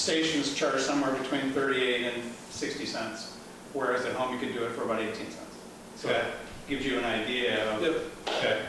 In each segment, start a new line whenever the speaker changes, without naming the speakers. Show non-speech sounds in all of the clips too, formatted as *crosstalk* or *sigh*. stations charge somewhere between 38 and 60 cents, whereas at home you could do it for about 18 cents. So that gives you an idea of,
Okay.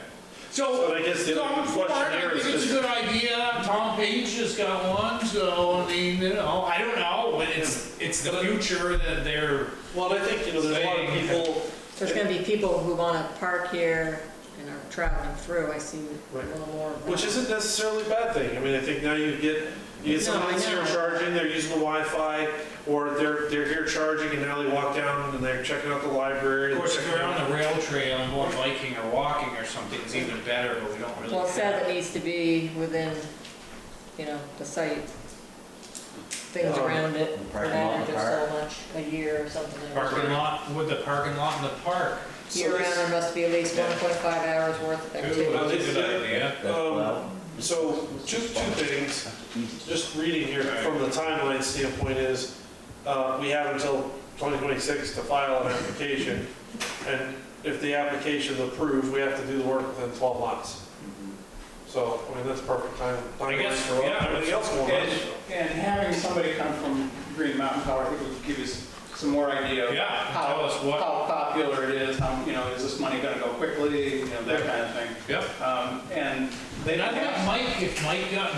So,
So I guess the
so I'm
other
for it,
question
I
here is
think it's a
just,
good idea, Tom Page has got one, so, I mean, you know, I don't know, but it's, it's the future that they're,
well, I think, you know, there's a lot of
Saying-
people,
There's gonna be people who wanna park here and are traveling through, I see a
Right.
little more. of that.
which isn't necessarily a bad thing. I mean, I think now you get, you get
No, I
someone that's here
know.
charging, they're using the Wi-Fi, or they're, they're here charging and now they walk down and they're checking out the library.
of course, if
they're
we're
checking out-
on the rail trail and going biking or walking or something, it's even better, but we don't really.
Well, it says
have-
it needs to be within, you know, the site, things
Um,
around it, for
parking lot in
that,
the
or just so much, a year or something.
Parking lot, with the parking lot in the park,
Year round, there must be at least
Yeah.
one point five hours worth of
too,
activity.
Ooh.
that's a good idea.
That's
Um,
well,
So, two, two things, just reading here
Right.
from the timeline standpoint is, uh, we have until 2026 to file an application, and if the application is approved, we have to do the work within 12 months. So, I mean, that's perfect time,
I
timeline
guess,
for
yeah.
everything else going on.
and and having somebody come from Green Mountain Power, I think would give you s- some more idea of
Yeah,
how,
tell us what-
how popular it is, how, you know, is this money gonna go quickly, you know, that kind of thing.
Yep.
Um, And they
And
don't
I think
have,
Mike, if Mike got,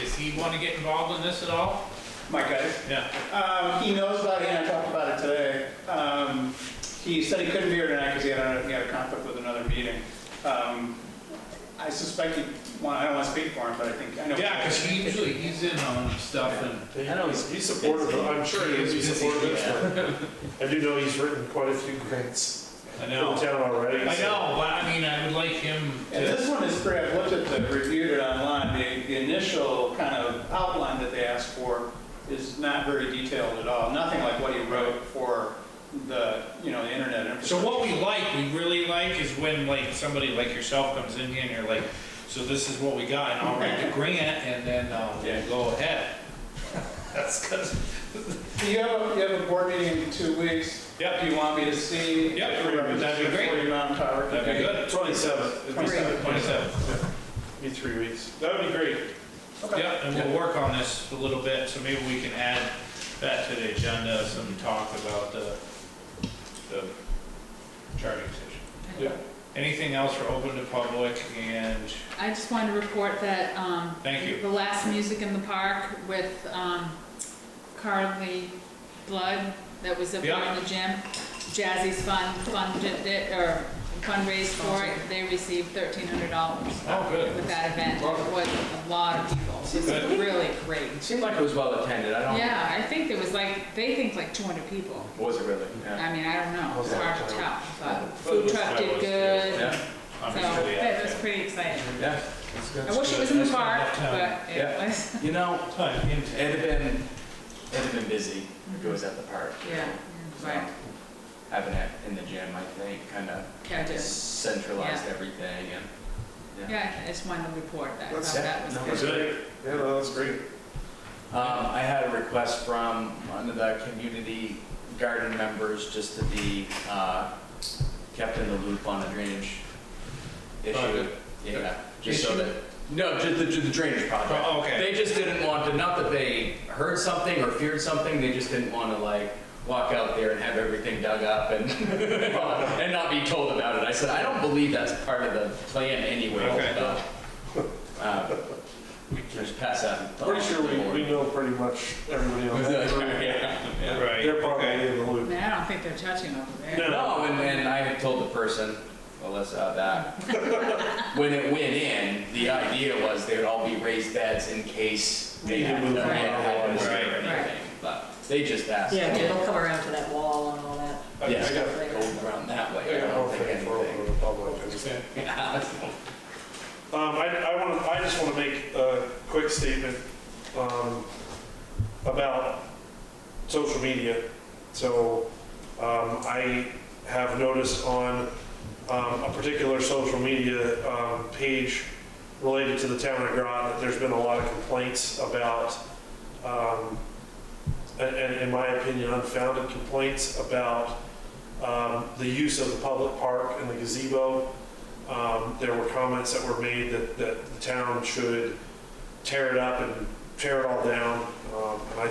does he want to get involved in this at all?
my guys,
Yeah.
Um, he knows about it, and I talked about it today. Um, he said he couldn't be here tonight because he had a, he had a conflict with another meeting. Um, I suspect he, well, I don't want to speak for him, but I think, I know.
Yeah, because he usually, he's in on stuff and
I know, he's he's supportive, of- I'm sure he'd be
He's busy,
supportive. of *laughs* this. I do know he's written quite a few grants
I
for the
know,
town
I
already. so-
know, but I mean, I would like him
And
to,
this one is great, I've looked at the, reviewed it online, the, the initial kind of outline that they asked for is not very detailed at all, nothing like what he wrote for the, you know, the internet infrastructure.
so what we like, we really like is when like somebody like yourself comes in here and you're like, so this is what we got and I'll write the grant and then uh,
Yeah.
we'll go ahead. That's because,
Do you have, a- you have a board meeting in two weeks?
Yep.
Do you want me to see?
Yep,
the
that'd be
representative
great.
for Green Mountain Tower?
that'd be good.
27, it'd be
Great.
27.
be three weeks. That would be great.
Okay.
Yeah, and we'll work on this a little bit, so maybe we can add that to the agenda, some talk about the, the charging station.
Yeah.
Anything else for open to public and,
I just wanted to report that, um.
Thank you.
The last Music in the Park with, um, Carly Blood that was up there in the gym. Jazzy's Fund funded it, or fundraised for it. They received thirteen hundred dollars
oh, good.
with that event. It was a lot of people. It was
Good.
really great.
It seemed like it was well attended. I don't.
Yeah, I think there was like, they think like two hundred people.
Was it really? Yeah.
I mean, I don't know. It's hard to tell,
But
but
it
food
was-
truck
that
did
was-
good.
Yeah.
I'm
So,
just really
that was
happy.
pretty exciting.
Yeah.
I wish it was in the
That's not
park,
enough time.
but it
Yeah.
was,
You know,
Time,
it
intake.
had been, it had been busy. It goes at the park.
yeah, right,
Having it in the gym, I think, kind of
catch it.
centralized everything and.
Yeah, I just wanted to report that, I
That's
thought
it.
that was
No,
good.
it's
Good.
Yeah, no, that's great.
Um, I had a request from one of the community garden members just to be, uh, kept in the loop on the drainage issue.
Project.
Yeah, just so
Issue?
that, no, just the, just the drainage project.
Oh, okay.
They just didn't want to, not that they heard something or feared something, they just didn't want to like walk out there and have everything dug up and, *laughs* and not be told about it. I said, I don't believe that's part of the plan anyway.
Okay.
so, uh, Just pass that.
Pretty sure we, we know pretty much everybody on that. group.
Right,
They're probably
okay.
in the
I
loop.
mean, I don't think they're touching over there.
No, and, and I had told the person, Alyssa, *laughs* that when it went in, the idea was they would all be raised beds in case they
Needed
had to,
movement
had
otherwise.
to or
Right.
anything. But they just asked.
Yeah, they'll come around to that wall and all that.
I
Yeah.
I got,
later.
Go around that way.
I
I
got
don't
more
think
faith for open
anything.
to the public.
*laughs* Yeah.
Um, I, I want to, I just want to make a quick statement, um, about social media. So, um, I have noticed on, um, a particular social media, um, page related to the town of Groton, that there's been a lot of complaints about, um, and, and in my opinion, unfounded complaints about, um, the use of the public park and the gazebo. Um, There were comments that were made that, that the town should tear it up and tear it all down. Um, And I